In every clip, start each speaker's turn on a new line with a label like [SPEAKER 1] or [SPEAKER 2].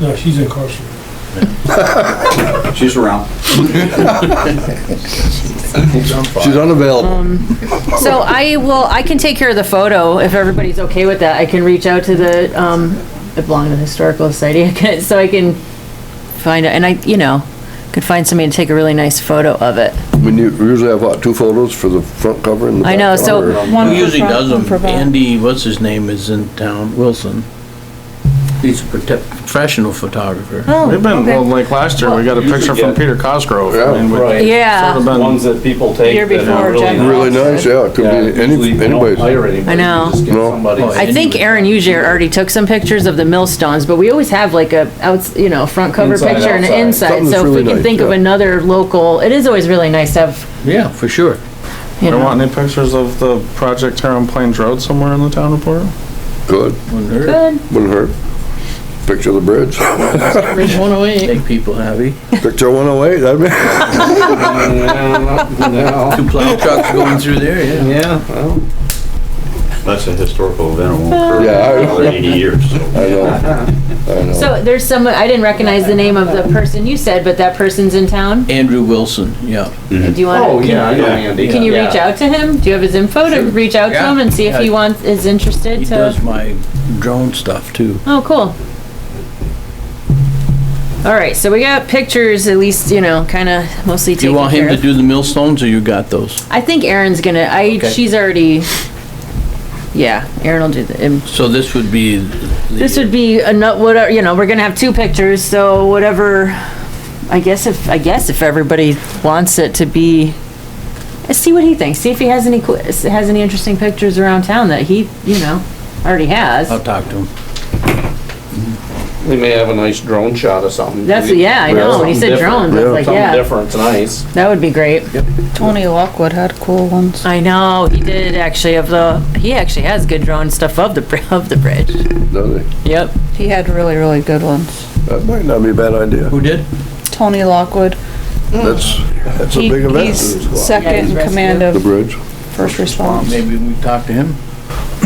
[SPEAKER 1] No, she's incarcerated.
[SPEAKER 2] She's around.
[SPEAKER 3] She's unavailable.
[SPEAKER 4] Um, So I will, I can take care of the photo if everybody's okay with that. I can reach out to the, um, it belonged to the Historical Society, I can- so I can find it, and I, you know, could find somebody to take a really nice photo of it.
[SPEAKER 3] We nu- we usually have, what, two photos for the front cover and the
[SPEAKER 4] I know,
[SPEAKER 3] back cover?
[SPEAKER 4] so-
[SPEAKER 5] One
[SPEAKER 6] Who
[SPEAKER 5] for
[SPEAKER 6] usually
[SPEAKER 5] front,
[SPEAKER 6] does
[SPEAKER 5] one for
[SPEAKER 6] them?
[SPEAKER 5] back.
[SPEAKER 6] Andy, what's his name, is in town, Wilson. He's a prote- professional photographer.
[SPEAKER 5] Oh,
[SPEAKER 7] We've been, well,
[SPEAKER 5] okay.
[SPEAKER 7] like last year, we got a
[SPEAKER 2] Usually
[SPEAKER 7] picture from
[SPEAKER 2] get-
[SPEAKER 7] Peter Cosgrove.
[SPEAKER 3] Yeah.
[SPEAKER 7] and we-
[SPEAKER 2] Right.
[SPEAKER 4] Yeah.
[SPEAKER 7] sort of been-
[SPEAKER 2] Ones that people
[SPEAKER 5] Year
[SPEAKER 2] take that
[SPEAKER 5] before,
[SPEAKER 2] are really
[SPEAKER 5] Jack.
[SPEAKER 2] nice.
[SPEAKER 3] Really nice, yeah, it could
[SPEAKER 2] Yeah,
[SPEAKER 3] be any,
[SPEAKER 2] usually you don't
[SPEAKER 3] anybody's.
[SPEAKER 2] hire anybody,
[SPEAKER 4] I
[SPEAKER 2] you
[SPEAKER 4] know.
[SPEAKER 2] just get
[SPEAKER 3] No.
[SPEAKER 2] somebody.
[SPEAKER 6] Oh,
[SPEAKER 4] I think Aaron Ujier already took some pictures of the millstones, but we always have like a outs, you know, front cover
[SPEAKER 2] Inside,
[SPEAKER 4] picture and an
[SPEAKER 2] outside.
[SPEAKER 4] inside.
[SPEAKER 3] Something that's
[SPEAKER 4] So if we
[SPEAKER 3] really
[SPEAKER 4] can
[SPEAKER 3] nice,
[SPEAKER 4] think of
[SPEAKER 3] yeah.
[SPEAKER 4] another local, it is always really nice to have,
[SPEAKER 6] Yeah, for sure.
[SPEAKER 4] you
[SPEAKER 7] You
[SPEAKER 4] know.
[SPEAKER 7] want any pictures of the project here on Plains Road somewhere in the town report?
[SPEAKER 3] Good,
[SPEAKER 6] Wouldn't hurt.
[SPEAKER 4] Good.
[SPEAKER 3] wouldn't hurt. Picture of the bridge,
[SPEAKER 4] Bridge 108.
[SPEAKER 6] Make people happy.
[SPEAKER 3] picture one oh eight, I mean,
[SPEAKER 2] No,
[SPEAKER 6] Two plow trucks going through there, yeah.
[SPEAKER 2] Yeah, well.
[SPEAKER 8] That's a historical event, it won't
[SPEAKER 3] Yeah, I
[SPEAKER 8] occur for
[SPEAKER 3] know.
[SPEAKER 8] another 80 years, so.
[SPEAKER 3] I know, I know.
[SPEAKER 4] So there's some, I didn't recognize the name of the person you said, but that person's in town?
[SPEAKER 6] Andrew Wilson, yeah.
[SPEAKER 4] Do you want?
[SPEAKER 2] Oh, yeah, I know
[SPEAKER 8] Yeah.
[SPEAKER 2] Andy.
[SPEAKER 4] Can you
[SPEAKER 2] Yeah.
[SPEAKER 4] reach out to him? Do you have his info to reach out to
[SPEAKER 6] Yeah.
[SPEAKER 4] him and see if he
[SPEAKER 6] Yeah.
[SPEAKER 4] wants, is
[SPEAKER 6] He
[SPEAKER 4] interested
[SPEAKER 6] does
[SPEAKER 4] to?
[SPEAKER 6] my drone stuff too.
[SPEAKER 4] Oh, cool. All right, so we got pictures, at least, you know, kind of mostly
[SPEAKER 6] Do you
[SPEAKER 4] taken
[SPEAKER 6] want him
[SPEAKER 4] care
[SPEAKER 6] to
[SPEAKER 4] of.
[SPEAKER 6] do the millstones or you got those?
[SPEAKER 4] I think Erin's gonna, I,
[SPEAKER 6] Okay.
[SPEAKER 4] she's already, yeah, Erin will do the, and
[SPEAKER 6] So this would be. the-
[SPEAKER 4] this would be a nut, whatever, you know, we're gonna have two pictures, so whatever, I guess if, I guess if everybody wants it to be, see what he thinks, see if he has any, qu- has any interesting pictures around town that he, you know, already has.
[SPEAKER 6] I'll talk to him.
[SPEAKER 2] We may have a nice drone shot or something.
[SPEAKER 4] That's-
[SPEAKER 2] We-
[SPEAKER 4] yeah, I
[SPEAKER 2] we have
[SPEAKER 4] know. When you
[SPEAKER 2] something
[SPEAKER 4] said
[SPEAKER 2] different.
[SPEAKER 4] drones, I was
[SPEAKER 2] Yeah,
[SPEAKER 4] like,
[SPEAKER 2] something
[SPEAKER 4] yeah.
[SPEAKER 2] different, nice.
[SPEAKER 4] That would be great.
[SPEAKER 5] Tony Lockwood had cool ones.
[SPEAKER 4] I know, he did actually of the, he actually has good drone stuff of the, br- of the bridge.
[SPEAKER 3] Does he?
[SPEAKER 4] Yep.
[SPEAKER 5] He had really, really good ones.
[SPEAKER 3] That might not be a bad idea,
[SPEAKER 6] Who did?
[SPEAKER 5] Tony Lockwood.
[SPEAKER 3] that's, that's a
[SPEAKER 5] He-
[SPEAKER 3] big event.
[SPEAKER 5] He's
[SPEAKER 4] Yeah,
[SPEAKER 5] second
[SPEAKER 4] he's
[SPEAKER 5] in
[SPEAKER 4] rescue.
[SPEAKER 5] command
[SPEAKER 3] The
[SPEAKER 5] of
[SPEAKER 3] bridge,
[SPEAKER 5] first response.
[SPEAKER 6] Maybe we talk to him.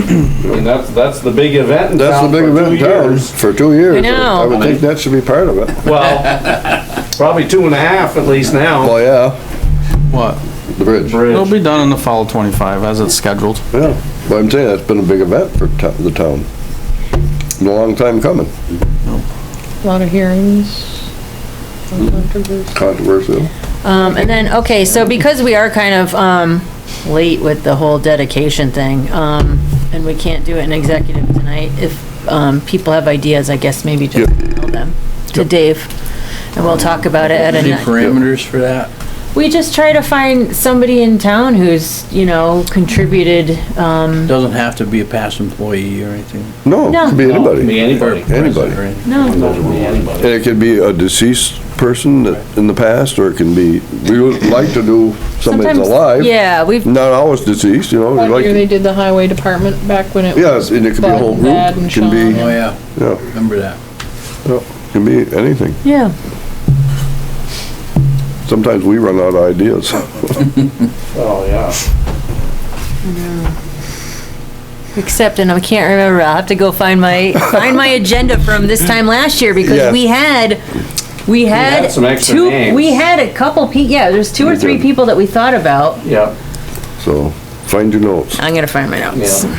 [SPEAKER 2] I mean, that's, that's the big event in
[SPEAKER 3] that's the
[SPEAKER 2] town
[SPEAKER 3] big
[SPEAKER 2] for
[SPEAKER 3] event
[SPEAKER 2] two
[SPEAKER 3] in town,
[SPEAKER 2] years.
[SPEAKER 3] for two years.
[SPEAKER 4] know.
[SPEAKER 3] I would think that should be part of it.
[SPEAKER 2] Well, probably two and a half at least now.
[SPEAKER 3] Well, yeah,
[SPEAKER 7] What?
[SPEAKER 3] the bridge,
[SPEAKER 7] It'll be done in the fall of twenty-five as it's scheduled.
[SPEAKER 3] yeah, but I'm saying, that's been a big event for to- the town. Been A long time coming,
[SPEAKER 5] Lot of hearings.
[SPEAKER 3] controversial.
[SPEAKER 4] Um, and then, okay, so because we are kind of, um, late with the whole dedication thing, um, and we can't do it in executive tonight, if, um, people have ideas, I guess maybe just email them to Dave, and we'll talk about it at
[SPEAKER 6] Any
[SPEAKER 4] a,
[SPEAKER 6] parameters for that?
[SPEAKER 4] we just try to find somebody in town who's, you know, contributed, um,
[SPEAKER 6] Doesn't have to be a past employee or anything.
[SPEAKER 3] No,
[SPEAKER 4] No.
[SPEAKER 3] it could be
[SPEAKER 2] Be
[SPEAKER 3] anybody,
[SPEAKER 2] anybody.
[SPEAKER 6] Or president
[SPEAKER 3] Anybody.
[SPEAKER 6] or anything.
[SPEAKER 4] no.
[SPEAKER 2] Be anybody.
[SPEAKER 3] and it could be a deceased person that, in the past, or it can be, we would like to do somebody that's
[SPEAKER 4] Sometimes-
[SPEAKER 3] alive.
[SPEAKER 4] Yeah, we've,
[SPEAKER 3] Not always deceased, you know, we
[SPEAKER 9] Like
[SPEAKER 3] like,
[SPEAKER 9] year they
[SPEAKER 3] to-
[SPEAKER 9] did the highway department back when it was
[SPEAKER 3] yes, and it could be a
[SPEAKER 9] Bud
[SPEAKER 3] whole
[SPEAKER 9] and
[SPEAKER 3] group,
[SPEAKER 9] Dad and
[SPEAKER 3] it can be,
[SPEAKER 6] Oh, yeah,
[SPEAKER 3] yeah,
[SPEAKER 6] remember that.
[SPEAKER 3] yeah, can be anything.
[SPEAKER 4] yeah.
[SPEAKER 3] Sometimes we run out of ideas.
[SPEAKER 2] Oh, yeah.
[SPEAKER 4] Except, and I can't remember, I'll have to go find my, find my agenda from this time last year, because
[SPEAKER 3] Yes.
[SPEAKER 4] we had, we had.
[SPEAKER 2] some extra
[SPEAKER 4] two-
[SPEAKER 2] names.
[SPEAKER 4] We had a couple pe, yeah, there's two or
[SPEAKER 3] We
[SPEAKER 4] three
[SPEAKER 3] did.
[SPEAKER 4] people that we thought about.
[SPEAKER 2] Yeah,
[SPEAKER 3] So, find your notes.
[SPEAKER 4] I'm gonna find my notes.
[SPEAKER 2] yeah.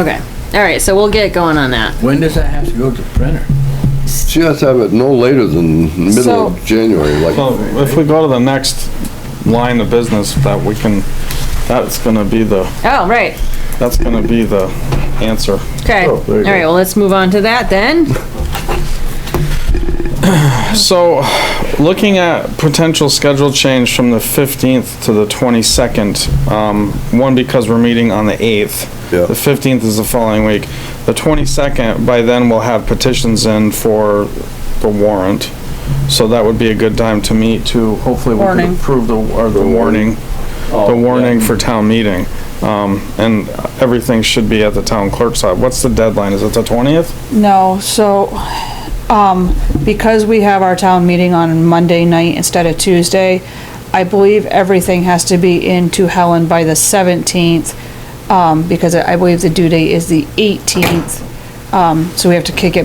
[SPEAKER 4] Okay, all right, so we'll get going on that.
[SPEAKER 6] When does that have to go to the printer?
[SPEAKER 3] She has to have it no later than middle of January,
[SPEAKER 7] So
[SPEAKER 3] like,
[SPEAKER 7] if we go to the next line of business, that we can, that's gonna be the,
[SPEAKER 4] Oh, right,
[SPEAKER 7] that's gonna be the answer.
[SPEAKER 4] okay. All
[SPEAKER 3] Oh, there you
[SPEAKER 4] right,
[SPEAKER 3] go.
[SPEAKER 4] well, let's move on to that then.
[SPEAKER 7] So, looking at potential schedule change from the 15th to the 22nd, um, one, because we're meeting on the 8th.
[SPEAKER 3] Yeah.
[SPEAKER 7] The 15th is the following week. The 22nd, by then we'll have petitions in for the warrant. So that would be a good time to meet to, hopefully we
[SPEAKER 5] Warning.
[SPEAKER 7] can approve the, or the warning, the warning for town meeting. Um, and everything should be at the town clerk's side. What's the deadline? Is it the 20th?
[SPEAKER 5] No, so, um, because we have our town meeting on Monday night instead of Tuesday, I believe everything has to be into Helen by the seventeenth, um, because I believe the due date is the eighteenth. Um, so we have to kick it